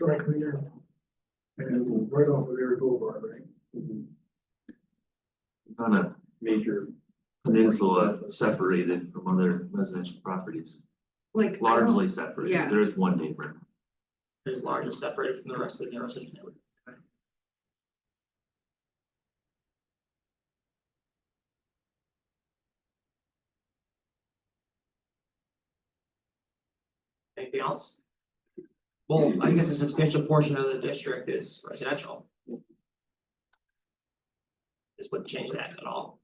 dry cleaner. And right off of Eric Boulevard, right? on a major peninsula separated from other residential properties, Like. I don't- largely separated. Oh, yeah. There is one neighbor. Is large is separated from the rest of the residential neighborhood. Anything else? Well, I guess a substantial portion of the district is residential. This wouldn't change that at all,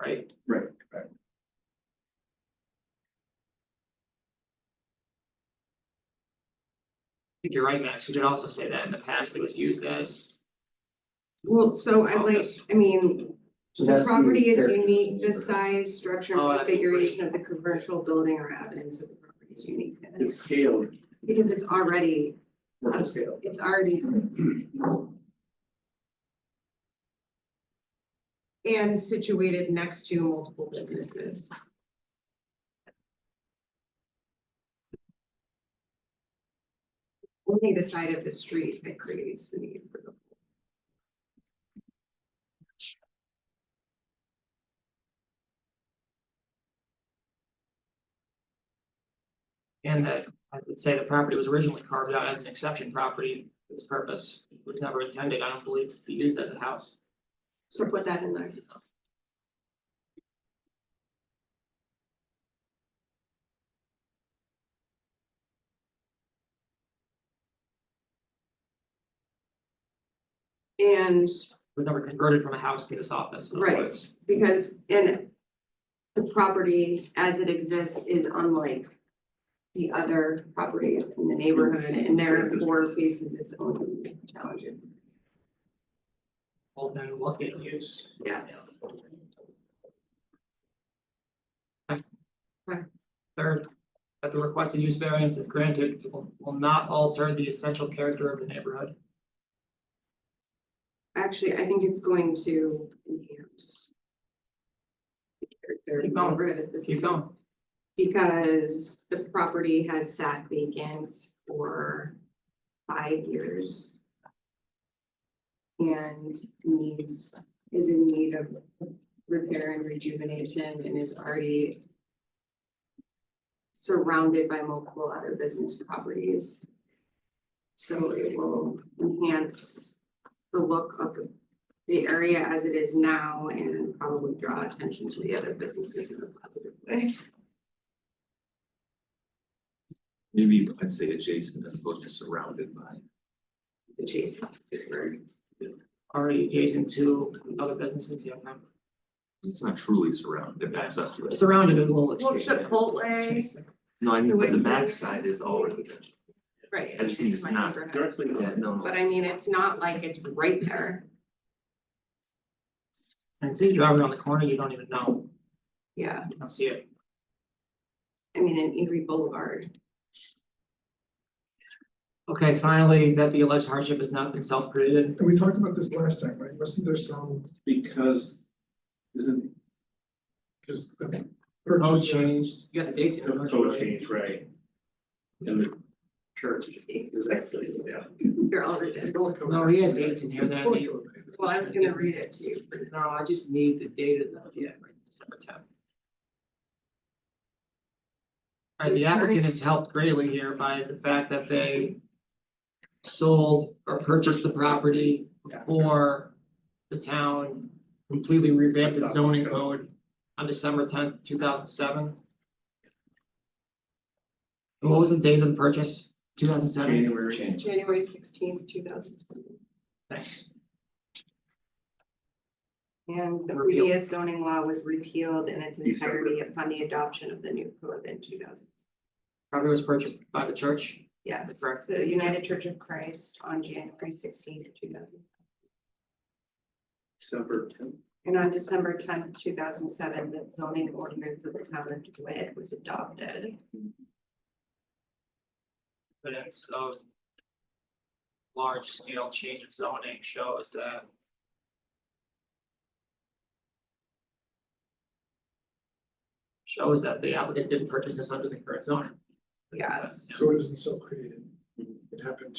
right? Right, right. I think you're right, Max, you did also say that in the past it was used as Well, so I like, Office. I mean, the property is unique, the This size, structure, Oh, and that'd be configuration of the commercial building or evidence of the property's It's uniqueness. scaled, Because it's already, commercial scale. it's already. And situated next to multiple businesses. Only the side of the street that creates the need for the And that, I would say the property was originally carved out as an exception property for this purpose, It was never intended, I don't believe, to be used as a house. So put that in there. And It was never converted from a house to this office, in other Right. words. because in the property as it exists is unlike the other properties in the neighborhood and therefore faces its own challenges. Well, then what can you use? Yes. Third, that the requested use variance if granted will will not alter the essential character of the neighborhood. Actually, I think it's going to enhance. the character of Keep going. neighborhood at this Keep point. going. Because the property has sat vacant for five years. And needs, is in need of repair and rejuvenation and is already. Surrounded by multiple other business properties. So it will enhance the look of the area as it is now and probably draw attention to the other businesses in a positive way. Maybe I'd say adjacent as opposed to surrounded by. adjacent. Already adjacent to other businesses, you know, It's not truly surrounded, it backs up to it. surrounded is a little Well, extreme. Chipotle. No, I mean, The way but the you- backside is already there. Right. I just mean it's my not neighborhood. Directly, Yeah, no, no. But I mean, it's not like it's right there. And see, you drive around the corner, you don't even know, Yeah, you don't see it. I mean, in Erie Boulevard. Okay, finally, that the alleged hardship has not been self-created. And we talked about this last time, right? Wasn't there some, because isn't because the The Code purchase, changed, you got the dates in the there. code uh, change, right? And the church is actually, yeah. Your owner did. No, he had dates in here that I need, Well, I was gonna read it to you. but- no, I just need the date of the, yeah, right, December tenth. Alright, Uh, the applicant has helped greatly here by the fact that they. Sold or purchased the property before the town completely revamped its zoning code on December tenth, two thousand seven. And what was the date of the purchase? Two thousand seven? January change. January sixteenth, two thousand seven. Thanks. And the Repealed. previous zoning law was repealed in its December. entirety upon the adoption of the new code in two thousand. Property was purchased by the church. Yes, Correct. the United Church of Christ on January sixteenth, two thousand. December tenth. And on December tenth, two thousand seven, the zoning ordinance of the town of DeWitt was adopted. evidence of large scale change of zoning shows that shows that the applicant didn't purchase this under the current zoning. Yes. so it isn't self-created. It happened